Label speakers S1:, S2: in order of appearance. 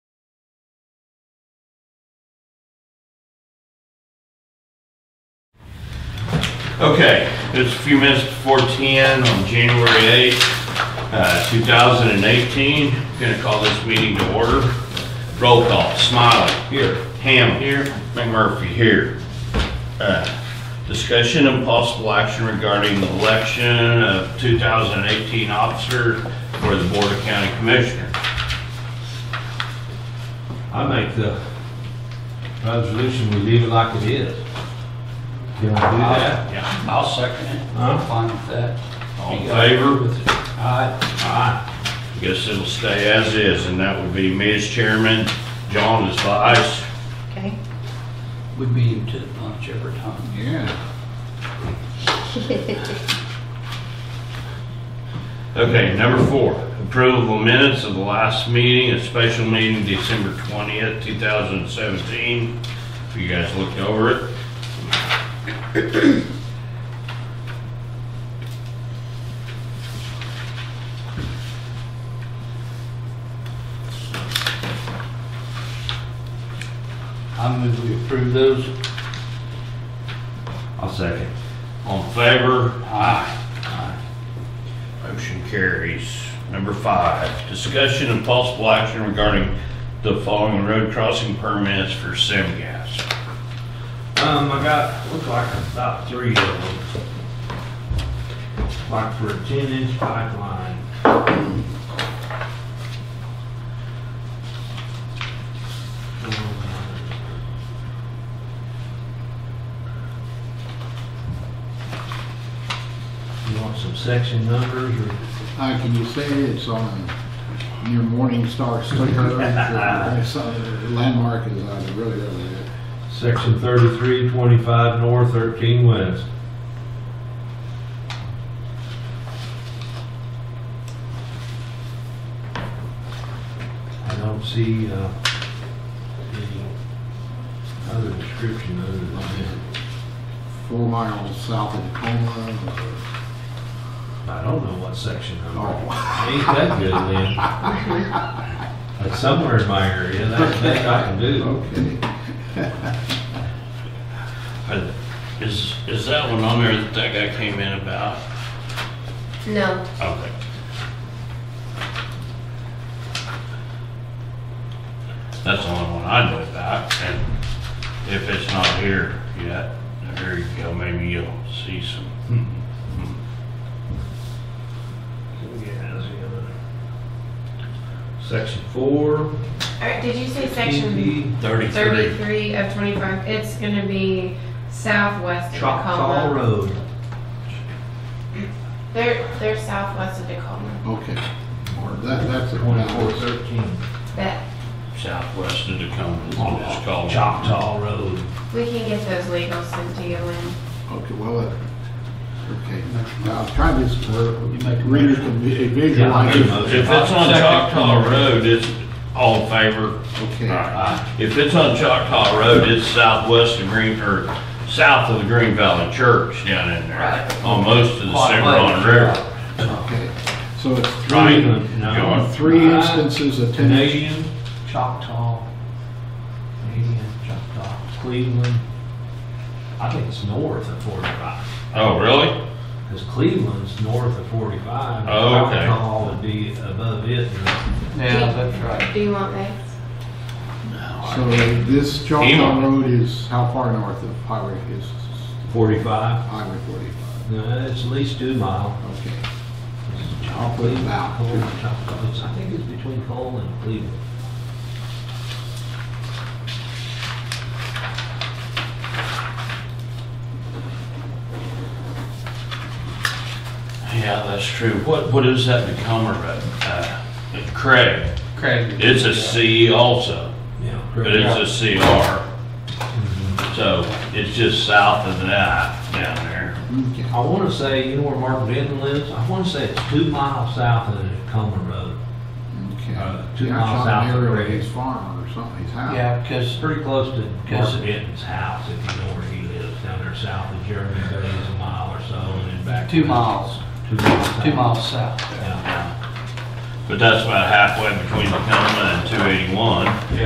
S1: Okay, it's a few minutes before 10 on January eighth, uh 2018. Going to call this meeting to order. Roll call, Smiley. Here. Ham. Here. McMurphy. Here. Uh, Discussion and possible action regarding the election of 2018 officer for the Board of County Commissioners.
S2: I make the resolution, we leave it like it is. Can we do that?
S1: Yeah.
S3: I'll second it.
S2: Huh?
S3: I'm fine with that.
S1: All in favor?
S3: Aye.
S2: Aye.
S1: Guess it'll stay as is, and that would be me as chairman, John as vice,
S4: Okay.
S3: We beat him to the punch every time.
S2: Yeah.
S1: Okay, number four, approval of minutes of the last meeting, a special meeting December twentieth, two thousand seventeen. If you guys looked over it.
S3: I move we approve those.
S2: I'll second.
S1: All in favor,
S3: Aye.
S1: motion carries. Number five, discussion and possible action regarding the following road crossing permits for Semgas.
S2: Um, I got, looks like about three of them. Like for a ten inch pipeline. You want some section numbers or?
S5: Hi, can you say it's on your Morningstar sticker? It's on the Landmark is on it, really, really good.
S2: Section thirty-three, twenty-five north, thirteen west. I don't see, uh, any other description other than that.
S5: Four miles south of Tacoma.
S2: I don't know what section number.
S5: Oh,
S2: Ain't that good, Lynn? It's somewhere in my area, that, that I can do.
S5: okay.
S1: Uh, Is, is that one on there that that guy came in about?
S4: No,
S1: Okay. That's the only one I know about, and if it's not here yet, there you go, maybe you'll see some. Hmm,
S2: Yeah, that's the other. Section four.
S4: all right, did you say section
S1: Thirty-three.
S4: thirty-three of twenty-five, it's gonna be southwest of
S2: Choctaw
S4: Tacoma.
S2: Road.
S4: They're, they're southwest of Tacoma,
S5: Okay. That, that's it.
S2: Twenty-four
S5: Now,
S2: thirteen.
S4: but
S1: Southwest of Tacoma, is what
S2: Oh,
S1: it's called.
S2: Choctaw Road.
S4: we can get those legals sent to you when,
S5: Okay, well, it- okay. Now, I'm trying to just, uh,
S3: make a
S5: readers can vi- visualize.
S2: Yeah, I'll
S5: it.
S2: do
S1: If it's on Choctaw Road, it's all in favor.
S5: Okay.
S1: Alright. If it's on Choctaw Road, it's southwest of Green, or south of the Green Valley Church down in there.
S3: Right.
S1: Almost to the
S3: Quite
S1: Cimarron
S3: late.
S1: River.
S5: Okay. So it's
S1: Right.
S5: three,
S2: No.
S5: three instances of
S2: Uh,
S5: ten.
S2: Canadian,
S3: Choctaw.
S2: Canadian, Choctaw, Cleveland. I think it's north of forty-five,
S1: Oh, really?
S2: because Cleveland's north of forty-five.
S1: Oh, okay.
S2: Choctaw would be above it. and-
S3: Yeah, that's right.
S4: do you want those?
S5: So this Choctaw
S1: Emo.
S5: Road is how far north of highway is
S2: Forty-five,
S5: highway forty-five?
S2: no, it's at least two mile.
S5: Okay.
S2: Choctaw, Cleveland,
S5: Wow.
S2: Cole, Choctaw, It's- I think it's between Cole and Cleveland.
S1: Yeah, that's true. What, what is that Tacoma Road? Uh, Craig,
S3: Craig.
S1: it's a C also,
S2: Yeah.
S1: but it's a CR. So it's just south of that down there.
S5: Okay.
S2: I want to say, you know where Mark Benton lives? I want to say it's two miles south of Tacoma Road.
S5: Okay.
S2: Uh, two
S5: Yeah, I
S2: miles
S5: shot an
S2: south of
S5: arrow at
S2: Grady.
S5: His farm or something, his house.
S3: Yeah, because
S2: It's pretty close to
S3: Yes.
S2: Mark Benton's house, if you know where he lives, down there south of Jeremy, there is a mile or so, and then back.
S3: two miles,
S2: Two miles.
S3: two
S2: south.
S3: miles south.
S2: Yeah.
S1: But that's about halfway between Tacoma and 281.